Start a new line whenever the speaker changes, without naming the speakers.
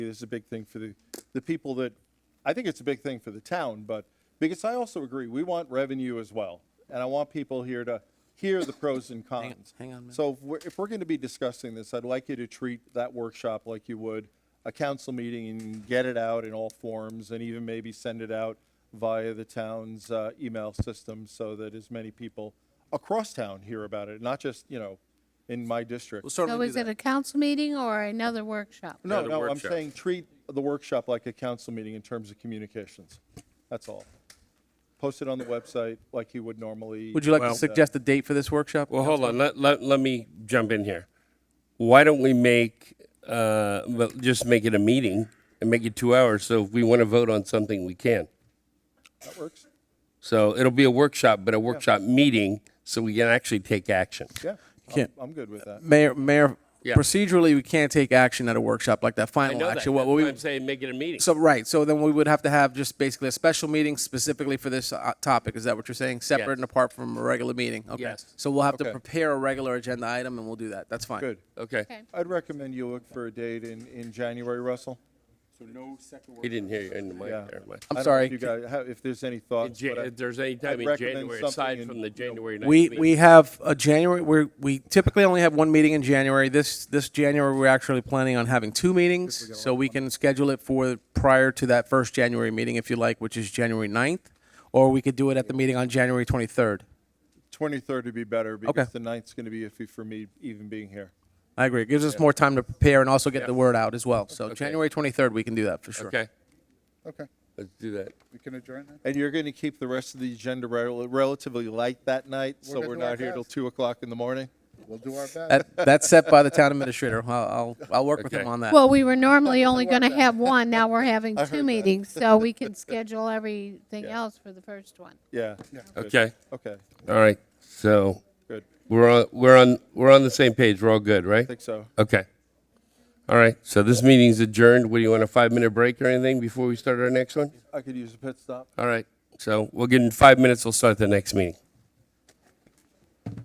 This is a big thing for the, the people that, I think it's a big thing for the town, but, because I also agree, we want revenue as well. And I want people here to hear the pros and cons.
hang on a minute.
So if we're, if we're going to be discussing this, I'd like you to treat that workshop like you would a council meeting and get it out in all forms and even maybe send it out via the town's uh, email system so that as many people across town hear about it, not just, you know, in my district.
We'll
So
certainly do
is it
that.
a council meeting or another workshop?
No,
the
no, I'm
workshop.
saying treat the workshop like a council meeting in terms of communications. That's all. Post it on the website like you would normally.
Would you like
Well-
to suggest a date for this workshop?
Well, hold on. Let, let, let me jump in here. Why don't we make, uh, well, just make it a meeting and make it two hours so if we want to vote on something, we can.
That works?
So it'll be a workshop, but a workshop meeting so we can actually take action.
Yeah. I'm-
Can't-
I'm good with that.
Mayor, Mayor,
Yeah.
procedurally, we can't take action at a workshop like that,
I
final
know that.
action. What
That's why
we,
I'm saying make it a meeting.
so, right, so then we would have to have just basically a special meeting specifically for this uh, topic. Is that what you're saying? Separate
Yes.
and apart from a regular meeting? Okay.
Yes.
So we'll have
Okay.
to prepare a regular agenda item and we'll do that. That's fine.
Good.
Okay.
Okay.
I'd recommend you look for a date in, in January, Russell.
He didn't hear you in the mic
Yeah.
there. but-
I don't
I'm
know if
sorry.
You guys, how- if there's any
In
thoughts.
Jan-
but I-
If there's any
I'd
time in
recommend
January,
something
aside
in,
from the
you know,
January 9th
We,
meeting.
we have a January, we're, we typically only have one meeting in January. This, this January, we're actually planning on having two meetings, so we can schedule it for prior to that first January meeting if you like, which is January 9th, or we could do it at the meeting on January 23rd.
23rd would be better because the 9th's going to be iffy for me even being here.
I agree. It gives us more time to prepare and also get the word out as well. So January 23rd, we can do that for sure.
Okay,
Okay,
let's do that.
we can adjourn then?
And you're going to keep the rest of the agenda rel- relatively light that night, so
gonna
we're
do our
not here till
best.
2 o'clock in the morning?
We'll do our best.
That, that's set by the town administrator. I'll, I'll, I'll work with
Okay.
him on that.
Well, we were normally only going to have one, now we're having two meetings, so we can schedule everything
Yeah.
else for the first one.
Yeah. Good.
Okay.
Okay,
All right. So
good.
we're on, we're on, we're on the same page. We're all good, right?
I think so.
Okay. All right. So this meeting's adjourned. What do you want, a five minute break or anything before we start our next one?
I could use a pit stop.
All right. So we'll get in five minutes. We'll start the next meeting.